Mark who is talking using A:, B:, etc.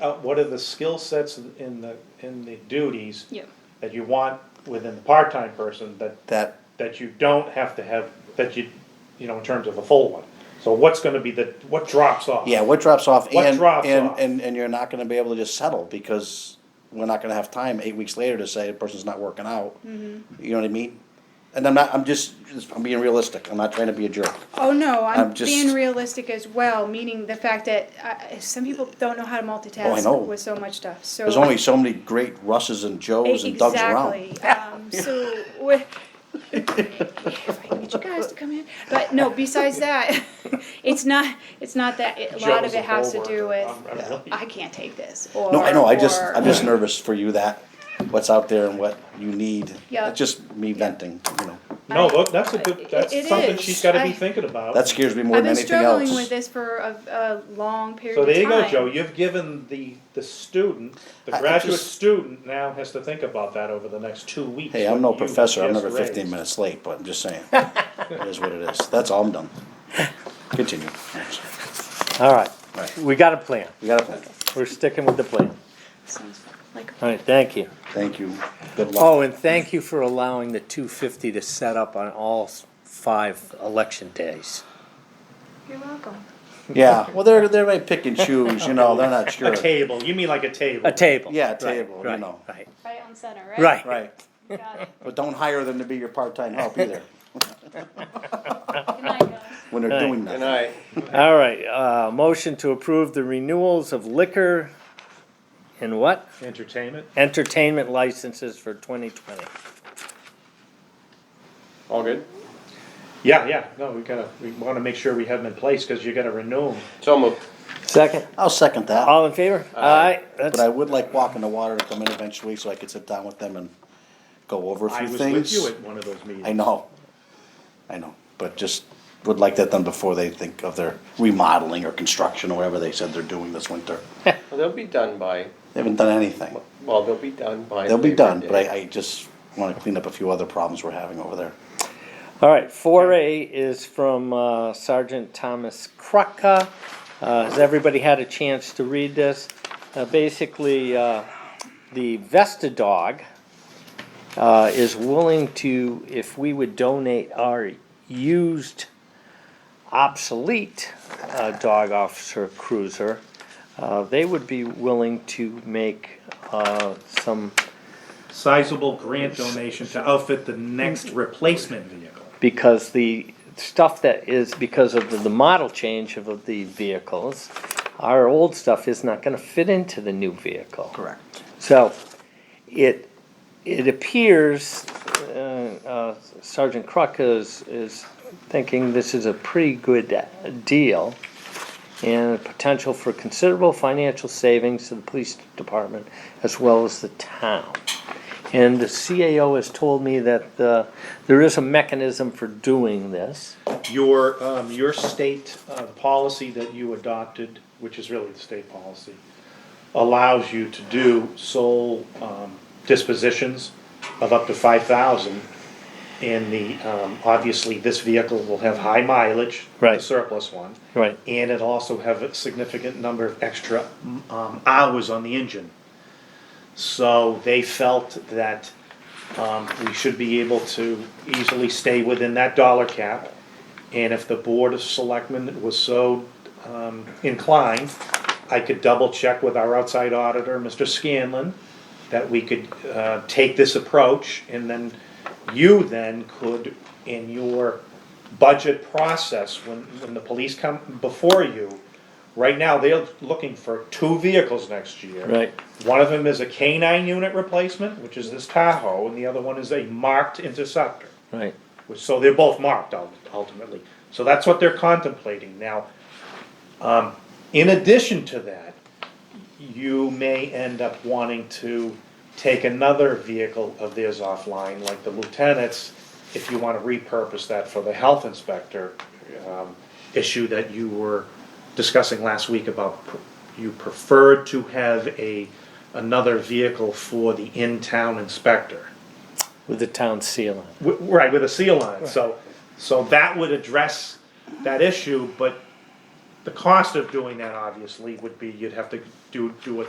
A: Uh, what are the skill sets in the, in the duties
B: Yeah.
A: that you want within the part-time person that,
C: that,
A: that you don't have to have, that you, you know, in terms of a full one? So what's gonna be the, what drops off?
C: yeah, what drops off
A: What
C: and,
A: drops
C: and,
A: off?
C: and, and you're not gonna be able to just settle because we're not gonna have time eight weeks later to say the person's not working out. You
B: Mm-hmm.
C: know what I mean? And I'm not, I'm just, I'm being realistic. I'm not trying to be a jerk.
B: Oh no, I'm,
C: I'm just-
B: being realistic as well, meaning the fact that uh, some people don't know how to multitask
C: Oh, I know.
B: with so much stuff. So
C: There's only so many great Russes and Joes and Dougs around.
B: exactly. Um, so with, if I can get you guys to come in, but no. Besides that, it's not. It's not that. It, a lot
A: Joe's
B: of it has to do
A: bull
B: with
A: market. I'm- I'm really-
B: I can't take this. Or,
C: No, I know, I just,
B: or-
C: I'm just nervous for you that, what's out there and what you need.
B: Yeah.
C: It's just me venting, you know.
A: No, look, that's a good,
B: It- it
A: that's something
B: is.
A: she's gotta
B: I-
A: be thinking about.
C: That scares me more
B: I've
C: than
B: been
C: anything
B: struggling
C: else.
B: with this for a, a long period.
A: So there
B: of
A: you
B: time.
A: go, Joe, you've given the, the student, the
C: I- I
A: graduate
C: just-
A: student now has to think about that over the next two weeks.
C: Hey, I'm
A: what
C: no
A: you
C: professor, I'm
A: just
C: never fifteen
A: raised.
C: minutes late, but I'm just saying, it is what it is, that's all I'm done. Continue,
D: All right,
C: Right.
D: we got a plan.
C: we got a plan,
D: We're sticking with the plan.
B: Sounds like
D: All right, thank you.
C: thank you, good luck.
D: Oh, and thank you for allowing the two fifty to set up on all s- five election days.
B: you're welcome.
C: Yeah, well, they're, they may pick and choose, you know, they're not sure.
A: A table, you mean like a table?
D: A table.
C: Yeah, a
D: Right,
C: table, you
D: right,
C: know.
D: Right,
B: Right on center, right?
D: right.
C: Right,
B: Got it.
C: but don't hire them to be your part-time help either,
B: Good night, guys.
C: when they're doing nothing.
E: Good night.
D: All right, uh, motion to approve the renewals of liquor and what?
A: Entertainment?
D: Entertainment licenses for twenty twenty.
E: All good?
A: Yeah, yeah, no, we gotta, we wanna make sure we have them in place, cause you gotta renew them.
E: So moved.
D: Second.
C: I'll second that,
D: All in favor?
E: Aye.
D: Aye, that's,
C: but I would like Walk in the Water to come in eventually, so I could sit down with them and go over a
A: I
C: few
A: was with you
C: things.
A: at one of those meetings.
C: I know, I know, but just would like that done before they think of their remodeling or construction or whatever they said they're doing this winter.
E: Well, they'll be done by,
C: They haven't done anything.
E: well, they'll be done by.
C: They'll be
E: Labor
C: done,
E: Day.
C: but I, I just wanna clean up a few other problems we're having over there.
D: all right, four A is from uh, Sergeant Thomas Krucka. Uh, has everybody had a chance to read this? Uh, basically, uh, the Vesta dog, uh, is willing to, if we would donate our used obsolete uh, dog officer cruiser, uh, they would be willing to make uh, some
A: Sizable grant donation to outfit the next replacement vehicle.
D: because the stuff that is because of the, the model change of the vehicles, our old stuff is not gonna fit into the new vehicle.
C: Correct.
D: So, it, it appears uh, uh, Sergeant Crook is, is thinking this is a pretty good uh, deal and potential for considerable financial savings to the police department as well as the town. And the CAO has told me that uh, there is a mechanism for doing this.
A: Your, um, your state, uh, policy that you adopted, which is really the state policy, allows you to do sole, um, dispositions of up to five thousand. And the, um, obviously, this vehicle will have high mileage. the
D: Right.
A: Surplus one.
D: Right.
A: And it'll also have a significant number of extra, um, hours on the engine. So they felt that um, we should be able to easily stay within that dollar cap. And if the Board of Selectmen was so um, inclined, I could double check with our outside auditor, Mr. Scanlon, that we could uh, take this approach and then you then could, in your budget process, when, when the police come before you, right now, they're looking for two vehicles next year.
D: Right.
A: One of them is a canine unit replacement, which is this Tahoe, and the other one is a marked interceptor.
D: Right.
A: which- So they're both marked ul- ultimately. So that's what they're contemplating. Now, um, in addition to that, you may end up wanting to take another vehicle of theirs offline, like the lieutenant's, if you wanna repurpose that for the health inspector, um, issue that you were discussing last week about pr- you preferred to have a, another vehicle for the in-town inspector.
D: With the town seal on it.
A: W- Right, with a seal on it, so, so that would address that issue, but the cost of doing that obviously would be, you'd have to do, do a